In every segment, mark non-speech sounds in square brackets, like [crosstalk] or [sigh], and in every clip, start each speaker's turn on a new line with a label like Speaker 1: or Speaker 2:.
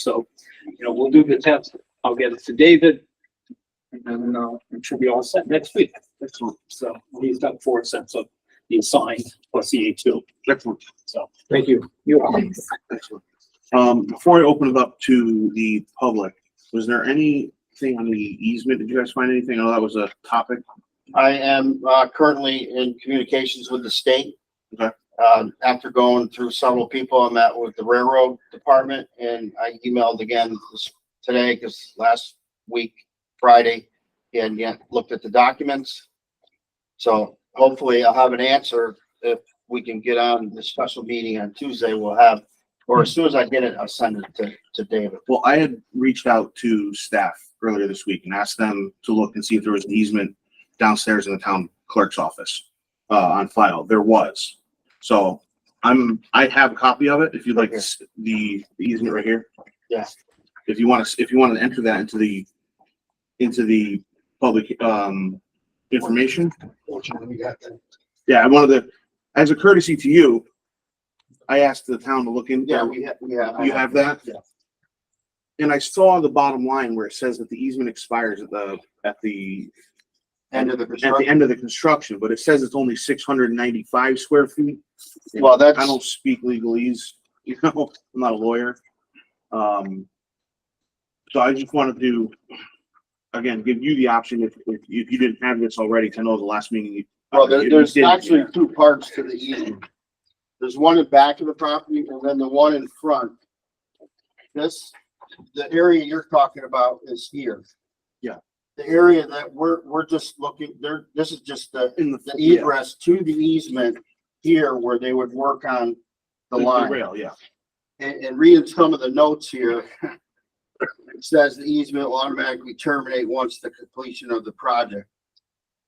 Speaker 1: So, you know, we'll do the tenth. I'll get it to David. And then, uh, it should be all set next week. Excellent. So he's got four sets of the assigned plus the H two.
Speaker 2: Excellent,
Speaker 1: So. Thank you. You are.
Speaker 2: excellent. Um, before I open it up to the public, was there anything on the easement? Did you guys find anything? Oh, that was a topic.
Speaker 3: I am uh, currently in communications with the state.
Speaker 2: Okay.
Speaker 3: Um, After going through several people, I met with the railroad department and I emailed again this- today because last week, Friday, and yet looked at the documents. So hopefully I'll have an answer if we can get on the special meeting on Tuesday, we'll have, or as soon as I get it, I'll send it to, to David.
Speaker 2: Well, I had reached out to staff earlier this week and asked them to look and see if there was an easement downstairs in the town clerk's office, uh, on file. There was. So I'm, I have a copy of it if you'd like to s- the the easement right here.
Speaker 3: Yeah.
Speaker 2: If you want to, if you want to enter that into the, into the public, um, information. Yeah, I wanted to, as a courtesy to you, I asked the town to look in.
Speaker 3: Yeah, we have, we have.
Speaker 2: You have that?
Speaker 3: Yeah.
Speaker 2: And I saw the bottom line where it says that the easement expires at the, at the,
Speaker 3: End of the
Speaker 2: at the
Speaker 3: construction.
Speaker 2: end of the construction, but it says it's only six hundred and ninety-five square feet. And
Speaker 3: Well, that's-
Speaker 2: I don't speak legalese, [laughs] you know, I'm not a lawyer. Um, so I just wanted to, again, give you the option if, if you if you didn't have this already, 'cause I know the last meeting you.
Speaker 3: Well, there,
Speaker 2: you
Speaker 3: there's
Speaker 2: did.
Speaker 3: actually two parts to the easement. There's one in back of the property and then the one in front. This, the area you're talking about is here.
Speaker 2: Yeah.
Speaker 3: The area that we're, we're just looking, there, this is just the,
Speaker 2: In the,
Speaker 3: the
Speaker 2: yeah,
Speaker 3: egress to the easement here where they would work on the line
Speaker 2: rail, yeah.
Speaker 3: and, and reading some of the notes here. It says the easement will automatically terminate once the completion of the project.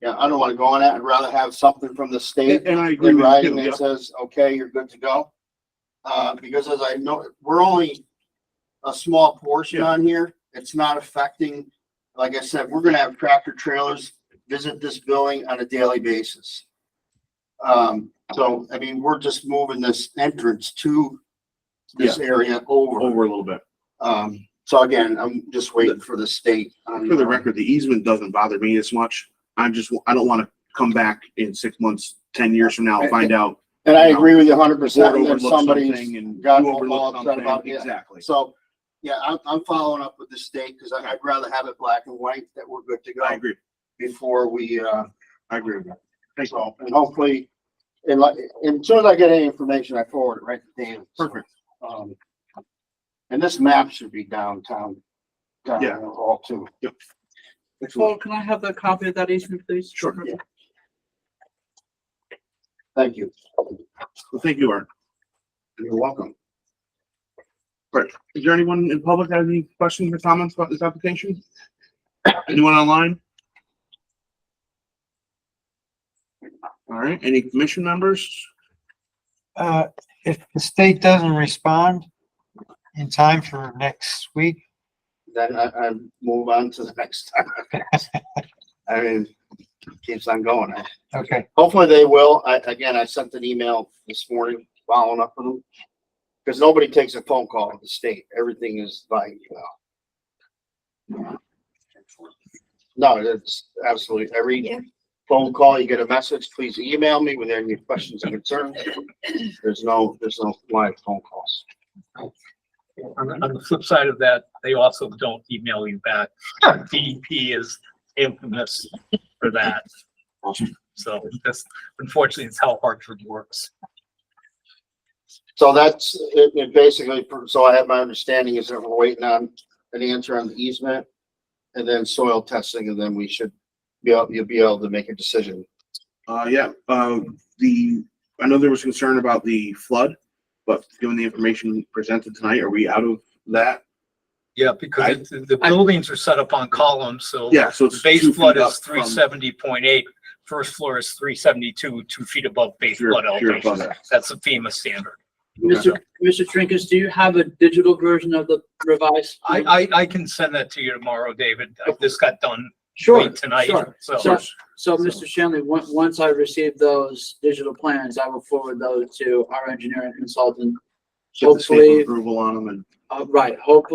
Speaker 3: Yeah, I don't wanna go on that. I'd rather have something from the state
Speaker 2: And and I agree
Speaker 3: in
Speaker 2: with you,
Speaker 3: writing
Speaker 2: too, yeah.
Speaker 3: that says, okay, you're good to go. Uh, because as I know, we're only a small portion
Speaker 2: Yeah.
Speaker 3: on here. It's not affecting, like I said, we're gonna have tractor trailers visit this building on a daily basis. Um, so, I mean, we're just moving this entrance to this area over.
Speaker 2: Over a little bit.
Speaker 3: Um, so again, I'm just waiting for the state. on-
Speaker 2: For the record, the easement doesn't bother me as much. I'm just, I don't want to come back in six months, ten years from now, and find out.
Speaker 3: And I agree with you hundred
Speaker 2: Ford
Speaker 3: percent that
Speaker 2: overlooked
Speaker 3: somebody's
Speaker 2: something and you
Speaker 3: got
Speaker 2: overlooked
Speaker 3: all upset about
Speaker 2: something.
Speaker 3: it.
Speaker 2: Exactly.
Speaker 3: So, yeah, I'm, I'm following up with the state because I'd rather have it black and white that we're good to
Speaker 2: I
Speaker 3: go
Speaker 2: agree.
Speaker 3: before we, uh,
Speaker 2: I agree with that. Thanks
Speaker 3: so,
Speaker 2: all.
Speaker 3: and hopefully, and like, and as soon as I get any information, I forward it right to Dan. So,
Speaker 2: Perfect.
Speaker 3: um, And this map should be downtown.
Speaker 2: Yeah.
Speaker 3: Down all too.
Speaker 4: Paul, can I have the copy of that easement, please?
Speaker 2: Sure.
Speaker 3: Yeah. Thank you.
Speaker 2: Well, thank you, Art.
Speaker 3: You're welcome.
Speaker 2: Is there anyone in public that has any questions or comments about this application? Anyone online? All right, any commission members?
Speaker 5: Uh, if the state doesn't respond in time for next week,
Speaker 3: Then I, I move on to the [laughs] next time. I mean, keeps on going. I-
Speaker 5: okay,
Speaker 3: Hopefully they will. I, again, I sent an email this morning following up with them. Cause nobody takes a phone call at the state. Everything is by email. No, it's absolutely
Speaker 6: Yeah.
Speaker 3: every phone call, you get a message, please email me with any questions and concerns. There's no, there's no live phone calls.
Speaker 7: On, the- on the flip side of that, they also don't email you back. DEP is infamous for that. So that's unfortunately, it's how Hartford works.
Speaker 3: So that's, it, it basically, so I have my understanding is that we're waiting on an answer on the easement and then soil testing, and then we should be able, you'll be able to make a decision
Speaker 2: Uh, yeah, uh, the, I know there was concern about the flood, but given the information presented tonight, are we out of that?
Speaker 7: Yeah, because the the buildings are set up on columns, so
Speaker 2: Yeah, so it's.
Speaker 7: the base
Speaker 2: two feet
Speaker 7: flood
Speaker 2: up
Speaker 7: is
Speaker 2: from-
Speaker 7: three seventy point eight. First floor is three seventy-two, two feet above base
Speaker 2: You're-
Speaker 7: flood
Speaker 2: you're
Speaker 7: elevation.
Speaker 2: above that.
Speaker 7: That's a FEMA standard.
Speaker 4: Mr. Mr. Trinkus, do you have a digital version of the revised?
Speaker 7: I, I, I can send that to you tomorrow, David. This got done
Speaker 4: Sure,
Speaker 7: late tonight,
Speaker 4: sure.
Speaker 7: so.
Speaker 4: So, so Mr. Shanley, on- once I receive those digital plans, I will forward those to our engineering consultant.
Speaker 2: Get the stamp
Speaker 4: Hopefully-
Speaker 2: Approval on them and.
Speaker 4: Uh, right, hopefully